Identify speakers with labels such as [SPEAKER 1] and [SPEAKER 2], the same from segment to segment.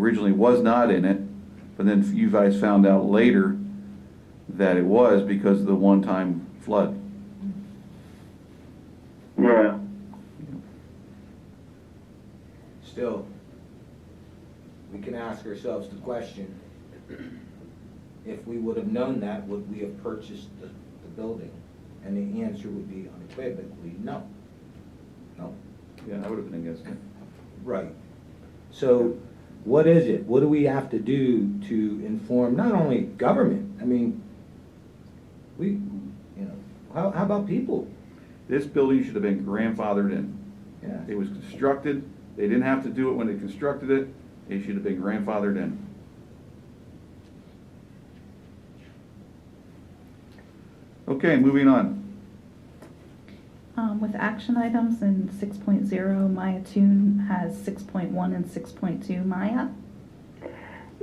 [SPEAKER 1] originally was not in it, but then you guys found out later that it was because of the one-time flood.
[SPEAKER 2] Yeah,
[SPEAKER 3] Still, we can ask ourselves the question, if we would have known that, would we have purchased the, the building? And the answer would be unequivocally, no. No.
[SPEAKER 1] Yeah, I would have been against it.
[SPEAKER 3] Right. So what is it? What do we have to do to inform not only government, I mean, we, you know, how, how about people?
[SPEAKER 1] This building should have been grandfathered in.
[SPEAKER 3] Yeah.
[SPEAKER 1] It was constructed, they didn't have to do it when they constructed it, it should have been grandfathered in. Okay, moving on.
[SPEAKER 4] Um, with action items in 6.0, Maya Tune has 6.1 and 6.2. Maya?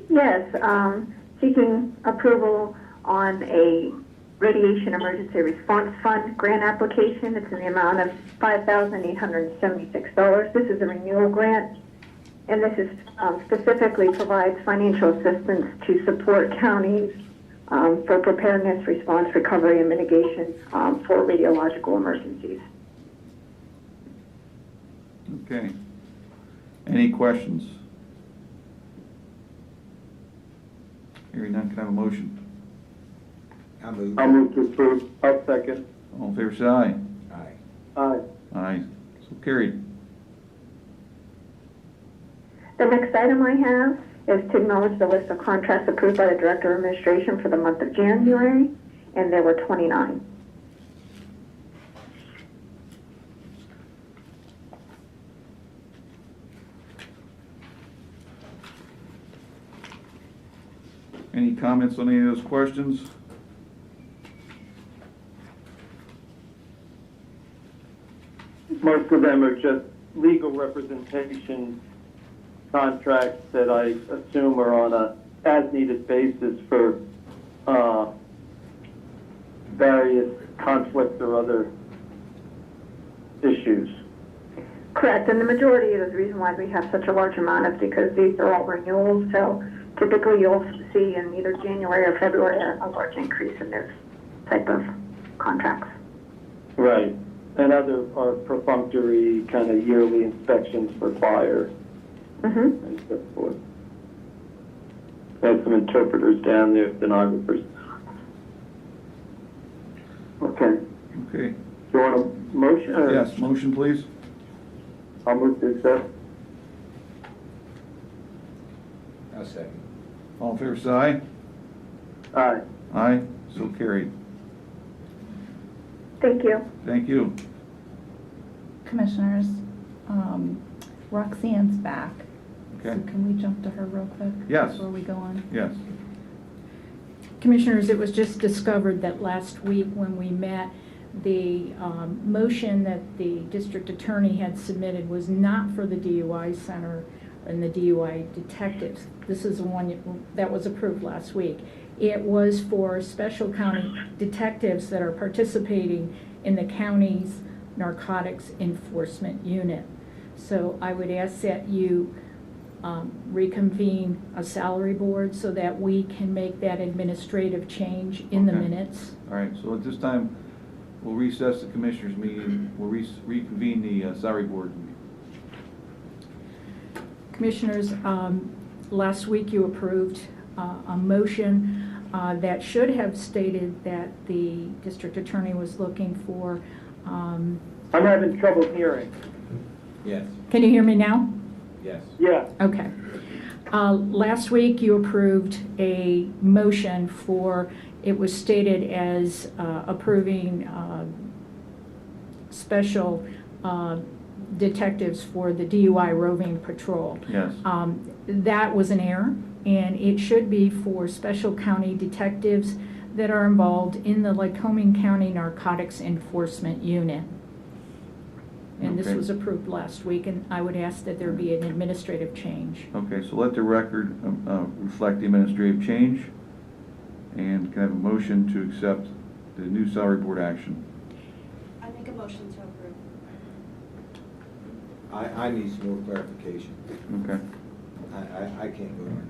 [SPEAKER 5] Yes, um, seeking approval on a radiation emergency response fund grant application. It's in the amount of $5,876. This is a renewal grant, and this is um, specifically provides financial assistance to support counties um, for preparedness, response, recovery, and mitigation um, for radiological emergencies.
[SPEAKER 1] Okay. Any questions? Hearing none, can I have a motion?
[SPEAKER 3] I move.
[SPEAKER 2] I'll move to approve. I'll second.
[SPEAKER 1] All in favor, say aye.
[SPEAKER 3] Aye.
[SPEAKER 2] Aye.
[SPEAKER 1] Aye. So carried.
[SPEAKER 5] The next item I have is to acknowledge the list of contracts approved by the Director of Administration for the month of January, and there were 29.
[SPEAKER 1] Any comments on any of those questions?
[SPEAKER 2] Most of them are just legal representation contracts that I assume are on a as-needed basis for, uh, various conflicts or other issues.
[SPEAKER 5] Correct, and the majority of the reason why we have such a large amount is because these are all renewals, so typically you'll see in either January or February a a large increase in those type of contracts.
[SPEAKER 2] Right. And other are perfunctory kind of yearly inspections for fire.
[SPEAKER 5] hmm
[SPEAKER 2] and so forth. Had some interpreters down there, stenographers. Okay,
[SPEAKER 1] Okay.
[SPEAKER 2] you want a motion? or-
[SPEAKER 1] Yes, motion, please.
[SPEAKER 2] I'll move to accept.
[SPEAKER 3] I'll second.
[SPEAKER 1] All in favor, say aye.
[SPEAKER 2] Aye.
[SPEAKER 1] Aye. So carried.
[SPEAKER 5] Thank you.
[SPEAKER 1] Thank you.
[SPEAKER 4] Commissioners, um, Roxanne's back.
[SPEAKER 1] Okay.
[SPEAKER 4] So can we jump to her real quick?
[SPEAKER 1] Yes.
[SPEAKER 4] Before we go on?
[SPEAKER 1] Yes.
[SPEAKER 6] Commissioners, it was just discovered that last week when we met, the um, motion that the district attorney had submitted was not for the DUI center and the DUI detectives. This is the one that was approved last week. It was for special county detectives that are participating in the county's narcotics enforcement unit. So I would ask that you um, reconvene a salary board so that we can make that administrative change in the
[SPEAKER 1] Okay.
[SPEAKER 6] minutes.
[SPEAKER 1] All right, so at this time, we'll recess the commissioners' meeting, we'll re- reconvene the uh, salary board. meeting.
[SPEAKER 6] Commissioners, um, last week you approved uh, a motion uh, that should have stated that the district attorney was looking for, um,
[SPEAKER 2] I'm having trouble hearing.
[SPEAKER 3] Yes,
[SPEAKER 6] can you hear me now?
[SPEAKER 3] yes.
[SPEAKER 2] Yeah,
[SPEAKER 6] Okay. Uh, Last week, you approved a motion for, it was stated as uh, approving um, special uh, detectives for the DUI roving patrol.
[SPEAKER 1] Yes.
[SPEAKER 6] Um, That was an error, and it should be for special county detectives that are involved in the Lycoming County Narcotics Enforcement Unit. And this
[SPEAKER 1] Okay.
[SPEAKER 6] was approved last week, and I would ask that there be an administrative change.
[SPEAKER 1] Okay, so let the record um, uh, reflect the administrative change, and can I have a motion to accept the new salary board action?
[SPEAKER 7] I make a motion to approve.
[SPEAKER 3] I, I need some more clarification.
[SPEAKER 1] Okay,
[SPEAKER 3] I, I, I can't vote on it.